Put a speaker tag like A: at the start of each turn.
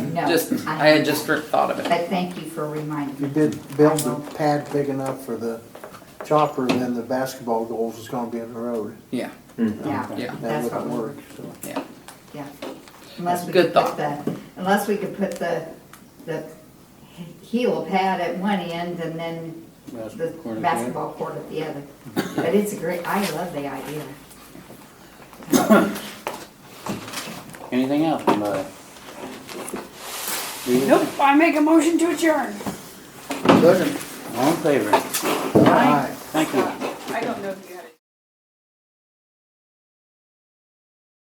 A: No,
B: Just, I
A: I
B: had just thought of it.
A: But thank you for reminding me.
C: You did build the pad big enough for the chopper, then the basketball goals is gonna be in the road.
B: Yeah,
A: Yeah,
B: Yeah.
C: That
A: that's what
C: wouldn't
A: we
C: work, so.
B: yeah.
A: Yeah. Unless we
B: Good
A: could put
B: thought.
A: the, unless we could put the, the heel pad at one end and then the basketball court at the other. But it's a great, I love the idea.
D: Anything else, anybody? Do you-
E: Nope, I make a motion to adjourn.
C: Second.
D: All in favor?
C: Aye.
D: Thank you.
E: I don't know if you have.